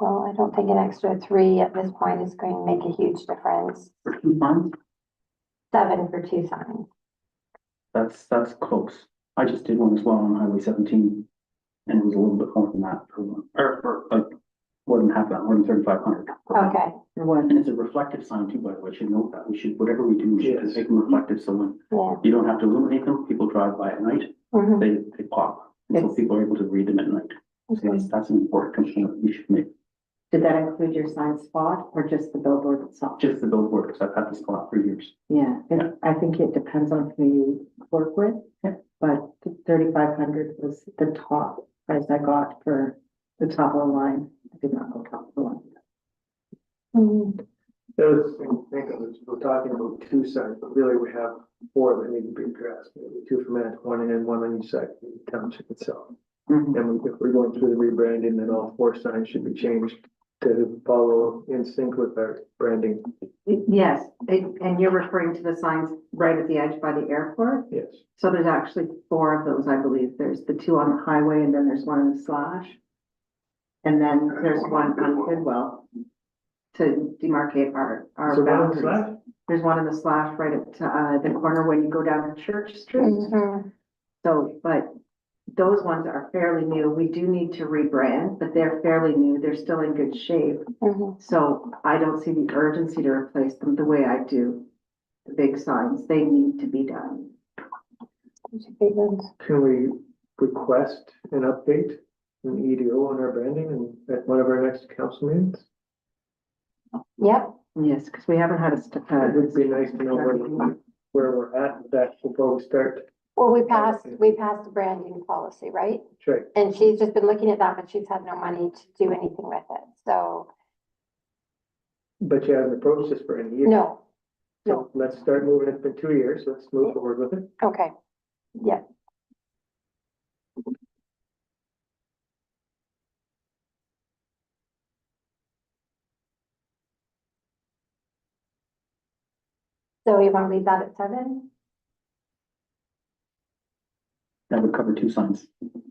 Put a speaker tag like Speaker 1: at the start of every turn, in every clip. Speaker 1: Well, I don't think an extra three at this point is going to make a huge difference.
Speaker 2: for two months,
Speaker 1: Seven for two signs.
Speaker 2: that's, that's close. I just did one as well on Highway seventeen. And it was a little bit more than that per one, or, for like, more than half that, more than thirty-five hundred.
Speaker 1: Okay,
Speaker 2: And it's a reflective sign too, by the way, should note that, we should, whatever we do, we should
Speaker 3: Yes.
Speaker 2: make them reflective, so when
Speaker 1: yeah.
Speaker 2: you don't have to illuminate them, people drive by at night,
Speaker 1: mhm,
Speaker 2: they, they pop. And So
Speaker 4: Yes.
Speaker 2: people are able to read them at night, so
Speaker 1: okay.
Speaker 2: that's, that's an important component we should make,
Speaker 4: Did that include your sign spot or just the billboard itself?
Speaker 2: just the billboard, because I've had this go out for years.
Speaker 4: Yeah, it- I think it depends on who you work with.
Speaker 2: Yeah.
Speaker 4: But thirty-five hundred was the top price I got for the top of the line. I did not go top of the line.
Speaker 1: Mhm,
Speaker 3: That was, the thing to think of, is we're talking about two sides, but really we have four that need to be addressed. Maybe Two for Manitowoc, one and one on each side, of the township itself.
Speaker 2: Mm-hmm.
Speaker 3: And we- if we're going through the rebranding, then all four signs should be changed to follow in sync with our branding,
Speaker 5: Yes, it- and you're referring to the signs right at the edge by the airport?
Speaker 3: yes.
Speaker 5: So there's actually four of those, I believe. There's the two on the highway and then there's one in the slash. And then there's one on Goodwell to demarcate our,
Speaker 3: So
Speaker 5: our
Speaker 3: one on the
Speaker 5: boundaries.
Speaker 3: side?
Speaker 5: There's one in the slash right at, uh, the corner when you go down Church
Speaker 4: Mm-hmm.
Speaker 5: Street.
Speaker 1: mhm.
Speaker 5: So, but those ones are fairly new. We do need to rebrand, but they're fairly new. They're still in good shape.
Speaker 1: mhm.
Speaker 5: So I don't see the urgency to replace them the way I do the big signs. They need to be done.
Speaker 1: Those are big ones.
Speaker 3: Can we request an update, an EDO on our branding and at one of our next council meetings?
Speaker 1: Yep,
Speaker 4: Yes, because we haven't had a, st-
Speaker 3: It would
Speaker 4: uh,
Speaker 3: be nice to know where, where we're at with that before we start.
Speaker 1: well, we passed, we passed the branding policy, right?
Speaker 3: Check.
Speaker 1: And she's just been looking at that, but she's had no money to do anything with it, so,
Speaker 3: But you haven't approached this for E any year.
Speaker 1: no,
Speaker 3: So let's start moving. It's been two years. Let's move forward with it.
Speaker 1: okay. Yep, so you wanna leave that at seven?
Speaker 2: That would cover two signs.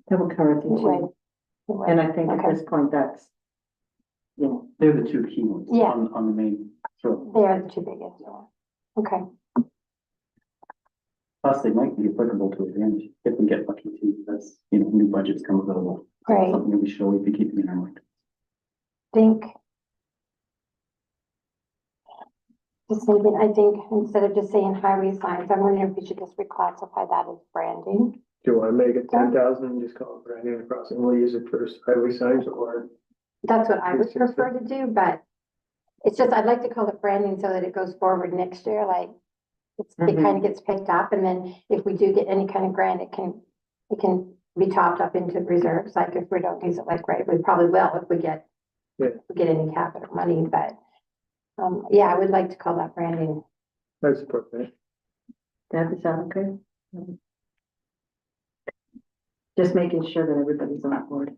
Speaker 4: that will cover the
Speaker 1: Right.
Speaker 4: two. And I think at this point, that's, you know,
Speaker 2: They're the two key ones
Speaker 1: Yeah.
Speaker 2: on, on the main throat.
Speaker 1: They are the two biggest, yeah. Okay,
Speaker 2: Plus, they might be applicable to advantage if we get lucky too. That's, you know, new budgets come available.
Speaker 1: great.
Speaker 2: Something we should always be keeping in our mind.
Speaker 1: think. Just thinking, I think instead of just saying highway signs, I'm wondering if we should just reclassify that as branding.
Speaker 3: Do you want to make it ten thousand and just call it Brandon Crossing? We'll use it for highway signs or
Speaker 1: That's what I would
Speaker 3: Yes, yes, yes.
Speaker 1: prefer to do, but it's just, I'd like to call it branding so that it goes forward next year, like. It's, it
Speaker 4: Mhm.
Speaker 1: kind of gets picked up and then if we do get any kind of grant, it can, it can be topped up into reserves, like if we don't use it like right, we probably will if we get.
Speaker 3: Yeah.
Speaker 1: if we Get any capital money, but, um, yeah, I would like to call that branding.
Speaker 3: I support that.
Speaker 4: that is that okay?
Speaker 5: just making sure that everybody's on board.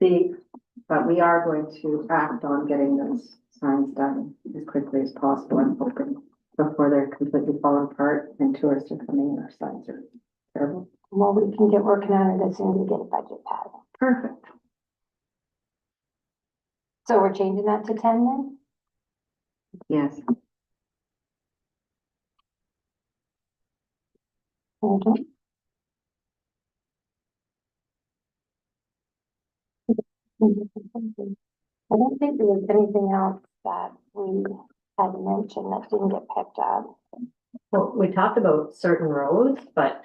Speaker 5: The, but we are going to act on getting those signs done as quickly as possible and hoping before they're completely falling apart and tourists are coming and our signs are terrible.
Speaker 1: Well, we can get working on it as soon as we get a budget pad.
Speaker 5: Perfect.
Speaker 1: So we're changing that to ten then?
Speaker 5: Yes.
Speaker 1: Hold on. I don't think there was anything else that we had mentioned that didn't get picked up.
Speaker 6: Well, we talked about certain roads, but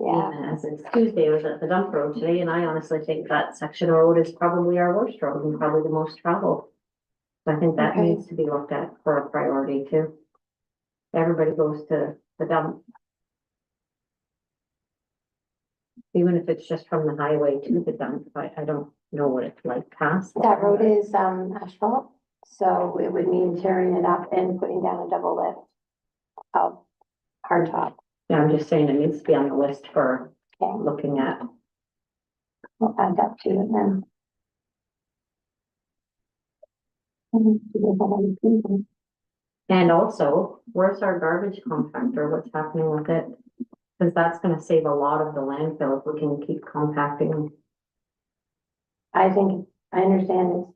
Speaker 1: Yeah,
Speaker 6: and as it's Tuesday, I was at the dump road today, and I honestly think that section of road is probably our worst road and probably the most traveled. So I think that
Speaker 1: Okay.
Speaker 6: needs to be looked at for a priority too. Everybody goes to the dump. Even if it's just from the highway to the dump, I, I don't know what it's like past.
Speaker 1: that road is um asphalt, so it would mean tearing it up and putting down a double lift of hard top.
Speaker 6: Yeah, I'm just saying it needs to be on the list for
Speaker 1: Okay,
Speaker 6: looking at.
Speaker 1: We'll add that to it then. Mhm, we have a lot of people.
Speaker 6: And also, where's our garbage compactor? What's happening with it? Cause that's gonna save a lot of the landfill if we can keep compacting.
Speaker 1: I think, I understand it's